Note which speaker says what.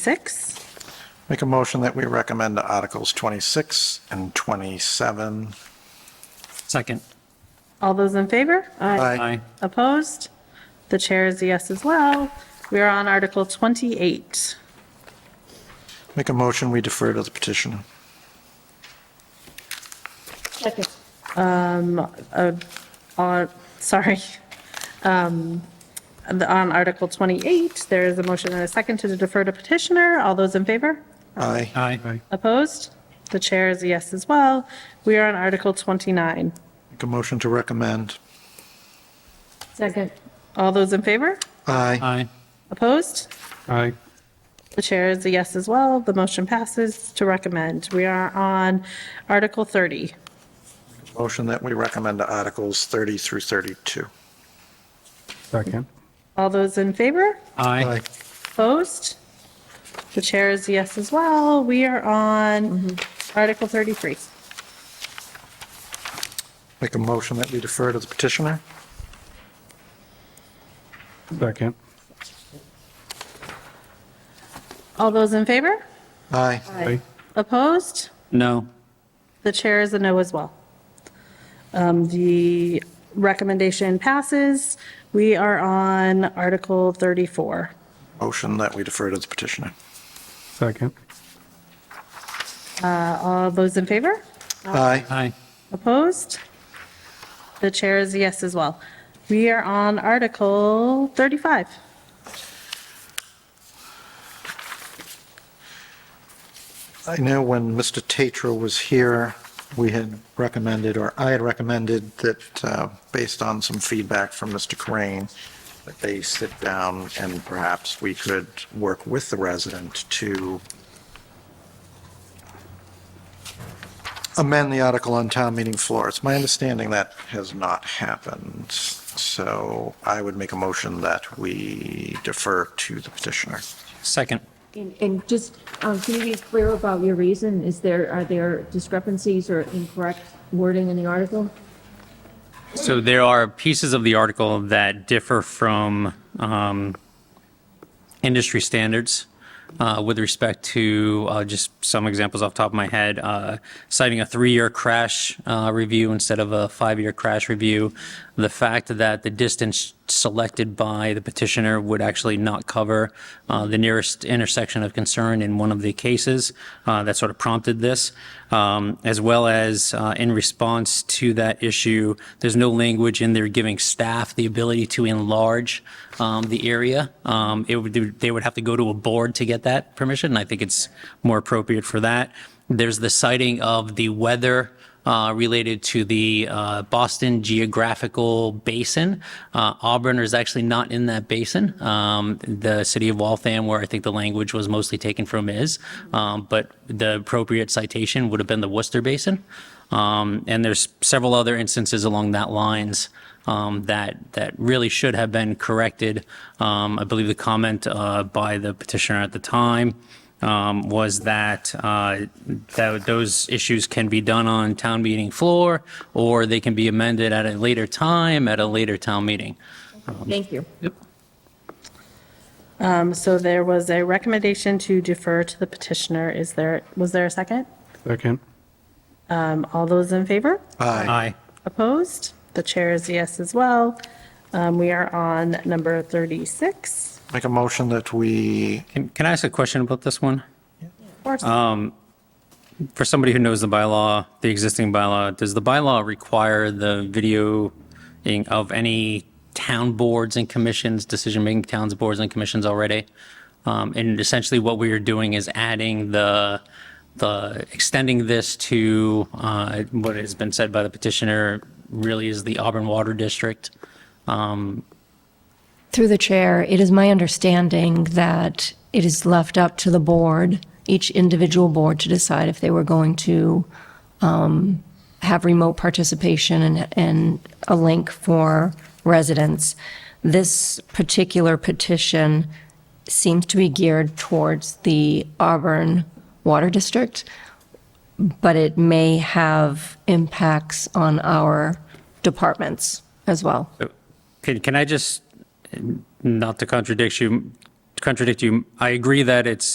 Speaker 1: 26.
Speaker 2: Make a motion that we recommend Articles 26 and 27.
Speaker 3: Second.
Speaker 1: All those in favor?
Speaker 3: Aye.
Speaker 1: Opposed? The chair is a yes as well. We are on Article 28.
Speaker 2: Make a motion, we defer to the petitioner.
Speaker 1: On, Uh, sorry. Um, the- On Article 28, there is a motion and a second to defer to petitioner. All those in favor?
Speaker 2: Aye.
Speaker 3: Aye.
Speaker 1: Opposed? The chair is a yes as well. We are on Article 29.
Speaker 2: Make a motion to recommend.
Speaker 1: Second. All those in favor?
Speaker 2: Aye.
Speaker 3: Aye.
Speaker 1: Opposed?
Speaker 3: Aye.
Speaker 1: The chair is a yes as well. The motion passes to recommend. We are on Article 30.
Speaker 2: Motion that we recommend Articles 30 through 32.
Speaker 4: Second.
Speaker 1: All those in favor?
Speaker 3: Aye.
Speaker 1: Opposed? The chair is a yes as well. We are on Article 33.
Speaker 2: Make a motion that we defer to the petitioner.
Speaker 4: Second.
Speaker 1: All those in favor?
Speaker 2: Aye.
Speaker 4: Aye.
Speaker 1: Opposed?
Speaker 3: No.
Speaker 1: The chair is a no as well. Um, The recommendation passes. We are on Article 34.
Speaker 2: Motion that we defer to the petitioner.
Speaker 4: Second.
Speaker 1: All those in favor?
Speaker 2: Aye.
Speaker 3: Aye.
Speaker 1: Opposed? The chair is a yes as well. We are on Article 35.
Speaker 2: I know when Mr. Tatro was here, we had recommended, or I had recommended that, uh, based on some feedback from Mr. Crane, that they sit down and perhaps we could work with the resident to amend the article on town meeting floor. It's my understanding that has not happened. So I would make a motion that we defer to the petitioner.
Speaker 3: Second.
Speaker 5: And, and just, um, can you be clear about your reason? Is there, are there discrepancies or incorrect wording in the article?
Speaker 3: So there are pieces of the article that differ from um, industry standards uh, with respect to, uh, just some examples off the top of my head, uh, citing a three-year crash uh, review instead of a five-year crash review, the fact that the distance selected by the petitioner would actually not cover uh, the nearest intersection of concern in one of the cases uh, that sort of prompted this, um, as well as uh, in response to that issue, there's no language in there giving staff the ability to enlarge um, the area. Um, It would, they would have to go to a board to get that permission, and I think it's more appropriate for that. There's the citing of the weather uh, related to the uh, Boston geographical basin. Uh, Auburn is actually not in that basin. Um, The city of Waltham, where I think the language was mostly taken from is, um, but the appropriate citation would have been the Worcester Basin. Um, And there's several other instances along that lines um, that, that really should have been corrected. Um, I believe the comment uh, by the petitioner at the time um, was that, uh, that those issues can be done on town meeting floor, or they can be amended at a later time, at a later town meeting.
Speaker 5: Thank you.
Speaker 1: Um, So there was a recommendation to defer to the petitioner. Is there, was there a second?
Speaker 4: Second.
Speaker 1: Um, All those in favor?
Speaker 2: Aye.
Speaker 1: Opposed? The chair is a yes as well. Um, We are on number 36.
Speaker 2: Make a motion that we
Speaker 3: Can can I ask a question about this one? Um,
Speaker 1: Of course.
Speaker 3: For somebody who knows the bylaw, the existing bylaw, does the bylaw require the videoing of any town boards and commissions, decision-making towns, boards and commissions already? Um, And essentially what we are doing is adding the, the, extending this to uh, what has been said by the petitioner really is the Auburn Water District.
Speaker 6: Through the chair, it is my understanding that it is left up to the board, each individual board, to decide if they were going to um, have remote participation and, and a link for residents. This particular petition seems to be geared towards the Auburn Water District, but it may have impacts on our departments as well.
Speaker 3: Can, can I just, not to contradict you, contradict you. I agree that it's